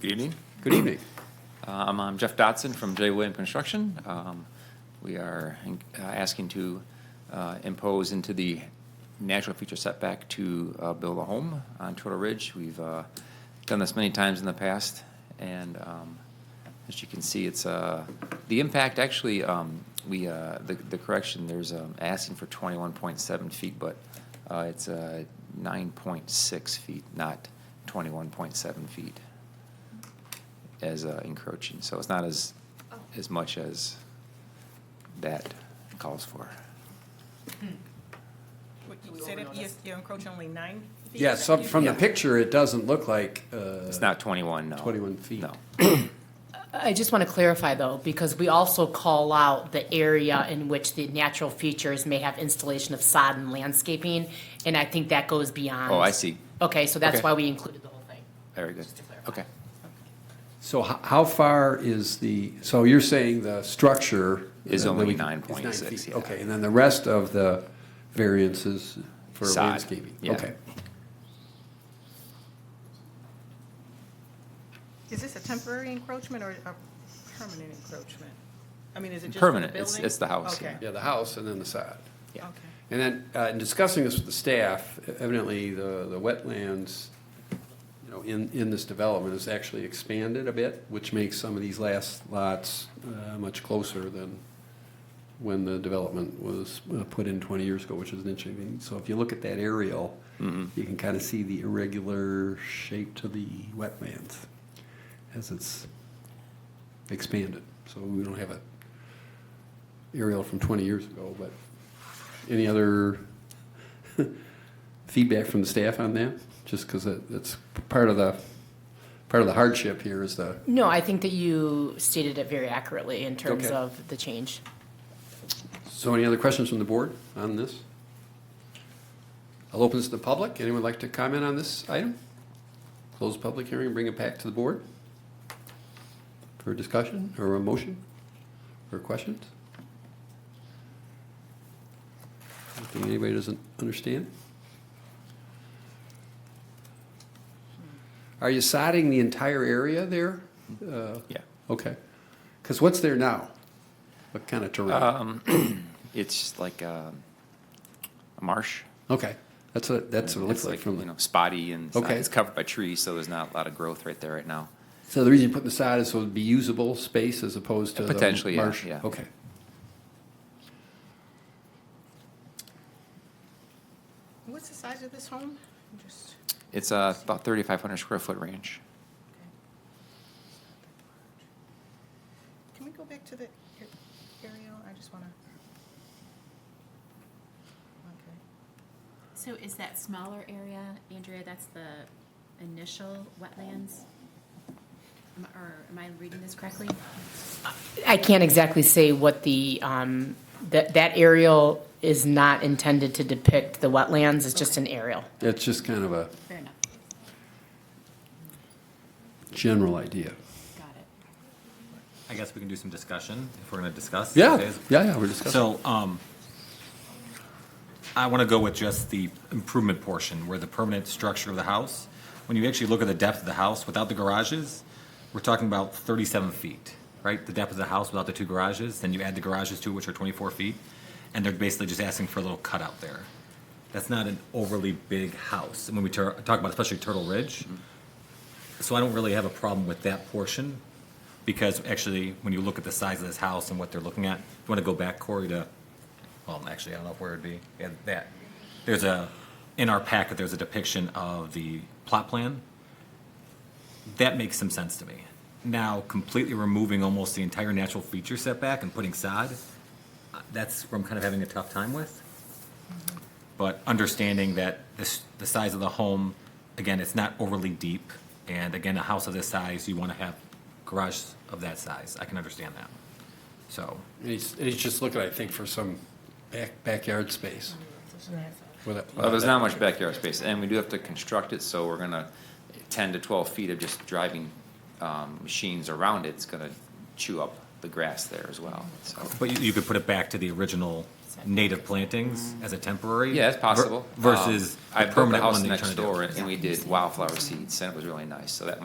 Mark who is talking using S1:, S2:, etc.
S1: Good evening.
S2: Good evening.
S1: Um, I'm Jeff Dotson from J. William Construction. Um, We are uh, asking to uh, impose into the natural feature setback to uh, build a home on Turtle Ridge. We've uh, done this many times in the past, and um, as you can see, it's, uh, the impact, actually, um, we, uh, the the correction, there's um, asking for 21.7 feet, but uh, it's uh, 9.6 feet, not 21.7 feet as uh, encroaching, so it's not as, as much as that calls for.
S3: What, You said E it- you- you encroach only nine feet?
S2: Yeah, so from the
S1: Yeah.
S2: picture, it doesn't look like, uh,
S1: It's not 21, no.
S2: 21 feet.
S1: No.
S4: I just want to clarify though, because we also call out the area in which the natural features may have installation of sod and landscaping, and I think that goes beyond.
S1: Oh, I see.
S4: Okay, so
S1: Okay.
S4: that's why we included the whole thing.
S1: Very good.
S4: Just to clarify.
S1: Okay.
S2: so h- how far is the, so you're saying the structure?
S1: Is
S2: uh,
S1: only
S2: that we- is
S1: 9.6,
S2: feet.
S1: yeah.
S2: Okay, and then the rest of the variances for
S1: Sod,
S2: landscaping?
S1: yeah.
S2: Okay.
S3: Is this a temporary encroachment or a permanent encroachment? I mean, is it just for the
S1: Permanent. It's-
S3: building?
S1: it's the house,
S3: Okay.
S2: Yeah, the house and then the side.
S1: Yeah.
S3: Okay.
S2: And then, uh, in discussing this with the staff, evidently the, the wetlands, you know, in, in this development is actually expanded a bit, which makes some of these last lots uh, much closer than when the development was uh, put in 20 years ago, which is interesting. So if you look at that aerial, you can kind of see the irregular shape to the wetlands as it's expanded. So we don't have a aerial from 20 years ago, but any other feedback from the staff on that? Just because it's part of the, part of the hardship here is the,
S4: No, I think that you stated it very accurately in terms
S2: Okay.
S4: of the change.
S2: so any other questions from the board on this? I'll open this to the public. Anyone like to comment on this item? Close the public hearing, bring it back to the board for discussion or a motion or questions? Anything anybody doesn't understand? Are you sodding the entire area there? Uh,
S1: Yeah.
S2: Okay. Because what's there now? What kind of terrain?
S1: Um, It's just like um, a marsh.
S2: Okay, that's what, that's what it looks
S1: It's
S2: like from
S1: You
S2: the,
S1: know, spotty and it's not-
S2: Okay.
S1: it's covered by trees, so there's not a lot of growth right there right now.
S2: so the reason you put the sod is so it'd be usable space as opposed to the
S1: Potentially, yeah,
S2: marsh?
S1: yeah.
S2: Okay.
S3: What's the size of this home? Just,
S1: It's uh, about 3,500 square foot range.
S3: can we go back to the a- aerial? I just want to. Okay.
S5: So is that smaller area, Andrea, that's the initial wetlands? Am- Or am I reading this correctly?
S4: I can't exactly say what the, um, that, that aerial is not intended to depict the wetlands, it's just an aerial.
S2: That's just kind of a
S5: Fair enough,
S2: general idea.
S5: got it.
S6: I guess we can do some discussion if we're going to discuss.
S2: Yeah,
S6: Okay.
S2: yeah, yeah, we're discussing.
S6: So, um, I want to go with just the improvement portion where the permanent structure of the house, when you actually look at the depth of the house without the garages, we're talking about thirty-seven feet, right? The depth of the house without the two garages, then you add the garages to it, which are twenty-four feet, and they're basically just asking for a little cutout there. That's not an overly big house. And when we tur- talk about especially Turtle Ridge, so I don't really have a problem with that portion, because actually, when you look at the size of this house and what they're looking at, if you want to go back, Corey, to, well, actually, I don't know where it'd be, yeah, that. There's a, in our packet, there's a depiction of the plot plan. That makes some sense to me. Now, completely removing almost the entire natural feature setback and putting sod, uh, that's where I'm kind of having a tough time with. But understanding that this, the size of the home, again, it's not overly deep. And again, a house of this size, you want to have garage of that size. I can understand that. So,
S2: And he's, and he's just looking, I think, for some back, backyard space. Without-
S1: Well, there's not
S6: Uh,
S1: much backyard space, and we do have to construct it, so we're gonna, ten to twelve feet of just driving, um, machines around it's gonna chew up the grass there as well, so.
S6: but you, you could put it back to the original native plantings as a temporary.
S1: Yeah, it's possible.
S6: ver- Versus
S1: Um,
S6: the
S1: I built the
S6: permanent one
S1: house
S6: that you
S1: next door,
S6: to do.
S1: and we did wildflower seeds, and it was really nice, so that might